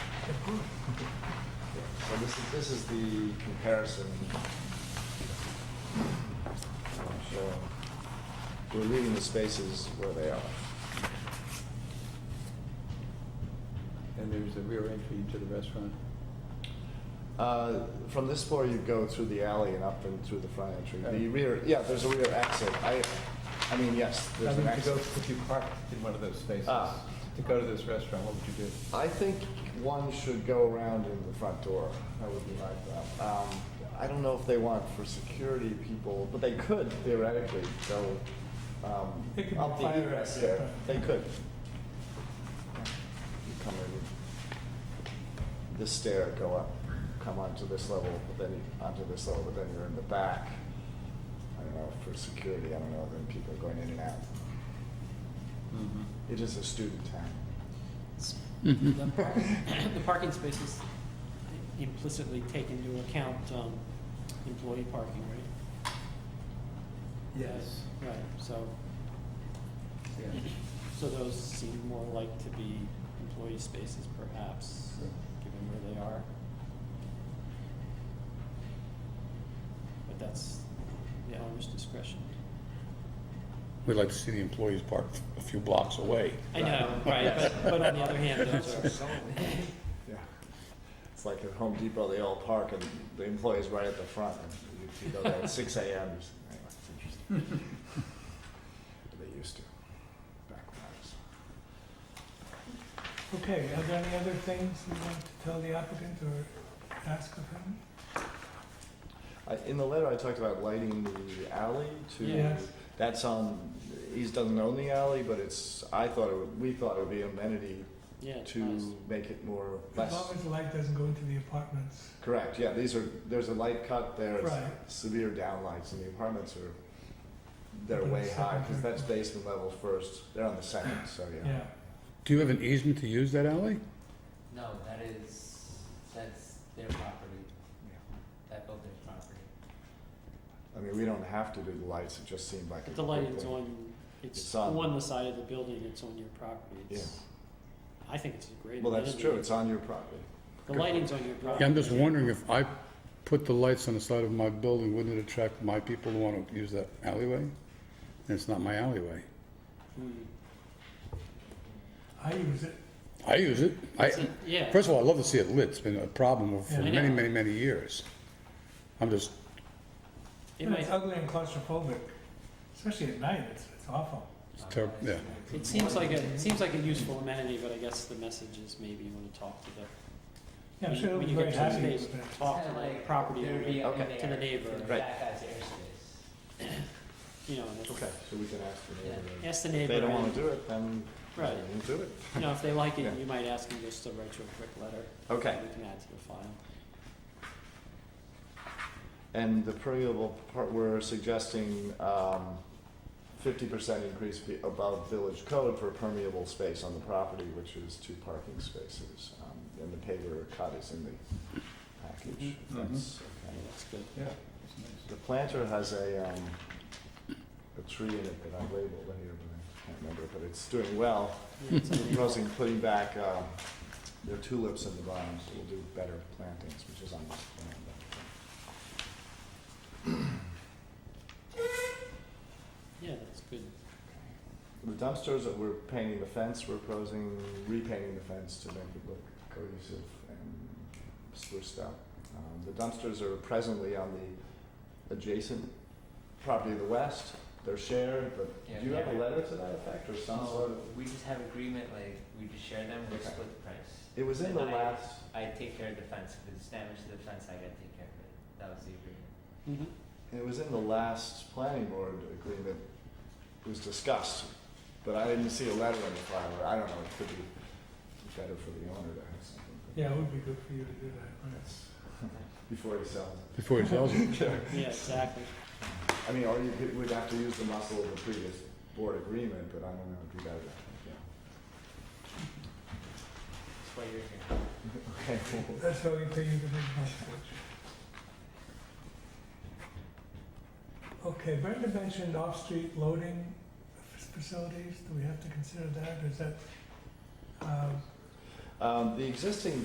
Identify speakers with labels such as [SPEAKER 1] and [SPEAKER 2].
[SPEAKER 1] So this is, this is the comparison. I'm sure. We're leaving the spaces where they are.
[SPEAKER 2] And there's a rear entry into the restaurant.
[SPEAKER 1] Uh, From this floor, you go through the alley and up and through the front entry. The
[SPEAKER 2] Yeah.
[SPEAKER 1] rear, yeah, there's a rear exit. I, I mean, yes,
[SPEAKER 2] I
[SPEAKER 1] there's an
[SPEAKER 2] mean, to go,
[SPEAKER 1] exit.
[SPEAKER 2] if you parked in one of those spaces,
[SPEAKER 1] Ah.
[SPEAKER 2] to go to this restaurant, what would you do?
[SPEAKER 1] I think one should go around in the front door. That would be my thought. Um, I don't know if they want for security people, but they could theoretically go um,
[SPEAKER 3] They could
[SPEAKER 1] up
[SPEAKER 3] be
[SPEAKER 1] the
[SPEAKER 3] fire
[SPEAKER 1] egress
[SPEAKER 3] exit.
[SPEAKER 1] there. They could. You come in this stair, go up, come onto this level, but then you- onto this level, but then you're in the back. I don't know for security. I don't know. Then people are going in and out.
[SPEAKER 2] Mm-hmm.
[SPEAKER 1] It is a student town.
[SPEAKER 3] The
[SPEAKER 1] Mm-hmm.
[SPEAKER 3] par- the parking spaces implicitly take into account um, employee parking, right?
[SPEAKER 4] Yes.
[SPEAKER 3] Right, so, so those seem more like to be employee spaces perhaps, given where they are. But that's the owner's discretion.
[SPEAKER 5] We'd like to see the employees parked a few blocks away.
[SPEAKER 3] I know, right, but, but on the other hand, those are,
[SPEAKER 1] Yeah. It's like at Home Depot, they all park and the employee's right at the front. and You you go there at six AM. Anyway, it's interesting. They used to, back when I was.
[SPEAKER 4] Okay, are there any other things you want to tell the applicant or ask of him?
[SPEAKER 1] I- In the letter, I talked about lighting the alley to.
[SPEAKER 4] Yes.
[SPEAKER 1] That's on, he doesn't own the alley, but it's, I thought it would, we thought it would be amenity
[SPEAKER 3] yeah, it's nice.
[SPEAKER 1] to make it more,
[SPEAKER 4] As
[SPEAKER 1] less.
[SPEAKER 4] long as the light doesn't go into the apartments.
[SPEAKER 1] Correct, yeah, these are, there's a light cut, there's
[SPEAKER 4] Right.
[SPEAKER 1] severe downlights, and the apartments are, they're
[SPEAKER 4] Up on
[SPEAKER 1] way
[SPEAKER 4] the
[SPEAKER 1] high,
[SPEAKER 4] second
[SPEAKER 1] because
[SPEAKER 4] floor.
[SPEAKER 1] that's basement level first, they're on the second, so yeah.
[SPEAKER 4] Yeah.
[SPEAKER 5] Do you have an easement to use that alley?
[SPEAKER 6] No, that is, that's their property, that builder's property.
[SPEAKER 1] I mean, we don't have to do the lights, it just seemed like.
[SPEAKER 3] But
[SPEAKER 1] a
[SPEAKER 3] the
[SPEAKER 1] good
[SPEAKER 3] lighting's
[SPEAKER 1] thing.
[SPEAKER 3] on, it's
[SPEAKER 1] It's on.
[SPEAKER 3] on the side of the building, it's on your property, it's, I think it's a great.
[SPEAKER 1] Well, that's
[SPEAKER 3] amenity.
[SPEAKER 1] true, it's on your property.
[SPEAKER 3] The lighting's on your property. Hmm.
[SPEAKER 5] Yeah, I'm just wondering if I put the lights on the side of my building, wouldn't it attract my people who want to use that alleyway? And it's not my alleyway.
[SPEAKER 3] Hmm.
[SPEAKER 4] I use it.
[SPEAKER 5] I use it. I,
[SPEAKER 3] It's a- Yeah,
[SPEAKER 5] first of all, I love to see it lit. It's been a problem for
[SPEAKER 4] Yeah.
[SPEAKER 5] many, many, many years. I'm just,
[SPEAKER 3] it
[SPEAKER 4] And It's
[SPEAKER 3] might,
[SPEAKER 4] ugly and claustrophobic, especially at night, it's, it's awful.
[SPEAKER 5] It's terrib-
[SPEAKER 6] Um,
[SPEAKER 5] yeah.
[SPEAKER 3] it seems like a, it seems like a useful amenity, but I guess the message is maybe you wanna talk to the,
[SPEAKER 4] Yeah, I'm
[SPEAKER 3] When-
[SPEAKER 4] sure
[SPEAKER 3] when
[SPEAKER 4] they'll be
[SPEAKER 3] you
[SPEAKER 4] very
[SPEAKER 3] get to the
[SPEAKER 4] happy
[SPEAKER 3] space.
[SPEAKER 4] with it.
[SPEAKER 3] talk
[SPEAKER 6] It's
[SPEAKER 3] to
[SPEAKER 6] kinda
[SPEAKER 3] the
[SPEAKER 6] like
[SPEAKER 3] property
[SPEAKER 6] There would be
[SPEAKER 3] owner,
[SPEAKER 6] up in
[SPEAKER 1] Okay.
[SPEAKER 6] there.
[SPEAKER 3] to the neighbor.
[SPEAKER 6] in
[SPEAKER 1] Right.
[SPEAKER 6] That guy's airspace.
[SPEAKER 3] you know, and
[SPEAKER 1] Okay, so we can ask the neighbor. then.
[SPEAKER 3] ask the
[SPEAKER 1] If
[SPEAKER 3] neighbor.
[SPEAKER 1] they don't wanna
[SPEAKER 3] and,
[SPEAKER 1] do it, then they
[SPEAKER 3] Right.
[SPEAKER 1] won't do it.
[SPEAKER 3] You know, if they like
[SPEAKER 1] Yeah.
[SPEAKER 3] it, you might ask them just to write you a quick letter.
[SPEAKER 1] Okay.
[SPEAKER 3] that We can add to the file.
[SPEAKER 1] And the permeable part, we're suggesting, um, fifty percent increase be- above village code for permeable space on the property, which is two parking spaces. Um, and the paver cut is in the package, if
[SPEAKER 2] Mhm.
[SPEAKER 1] that's okay.
[SPEAKER 3] That's good.
[SPEAKER 2] Yeah, it's nice.
[SPEAKER 1] The planter has a, um, a tree in it that I labeled here, but I can't remember, but it's doing well.
[SPEAKER 3] Yeah, it's
[SPEAKER 1] We're
[SPEAKER 3] amazing.
[SPEAKER 1] Proposing putting back, um, their tulips in the bottom, so we'll do better plantings, which is on this plan. but-
[SPEAKER 3] Yeah, that's good.
[SPEAKER 1] The dumpsters that we're painting the fence, we're proposing repainting the fence to make it look cohesive and spruced up. Um, the dumpsters are presently on the adjacent property of the west. They're shared, but
[SPEAKER 6] Yeah,
[SPEAKER 1] do you have a
[SPEAKER 6] yeah.
[SPEAKER 1] letter to that effect or some
[SPEAKER 6] Oh,
[SPEAKER 1] sort of?
[SPEAKER 6] We just have agreement, like, we just share them, we
[SPEAKER 1] Okay.
[SPEAKER 6] split the price.
[SPEAKER 1] It was in the
[SPEAKER 6] And I-
[SPEAKER 1] last,
[SPEAKER 6] I take care of the fence, if it's damage to the fence, I gotta take care of it, that was the agreement.
[SPEAKER 3] Mhm.
[SPEAKER 1] it was in the last planning board agreement. It was discussed, but I didn't see a letter in the file. I don't know, it could be better for the owner to have something. but
[SPEAKER 4] Yeah, it would be good for you to do that, right?
[SPEAKER 1] that's- Before he sells it.
[SPEAKER 5] before he sells it.
[SPEAKER 3] Yeah, exactly.
[SPEAKER 1] I mean, or you could, would have to use the muscle of the previous board agreement, but I don't know, it'd be better. yeah.
[SPEAKER 6] That's why you're here.
[SPEAKER 1] Okay, well,
[SPEAKER 4] That's how we pay you the big bucks. Okay, Brenda mentioned off-street loading f- facilities, do we have to consider that, is that, um,
[SPEAKER 1] Um, the existing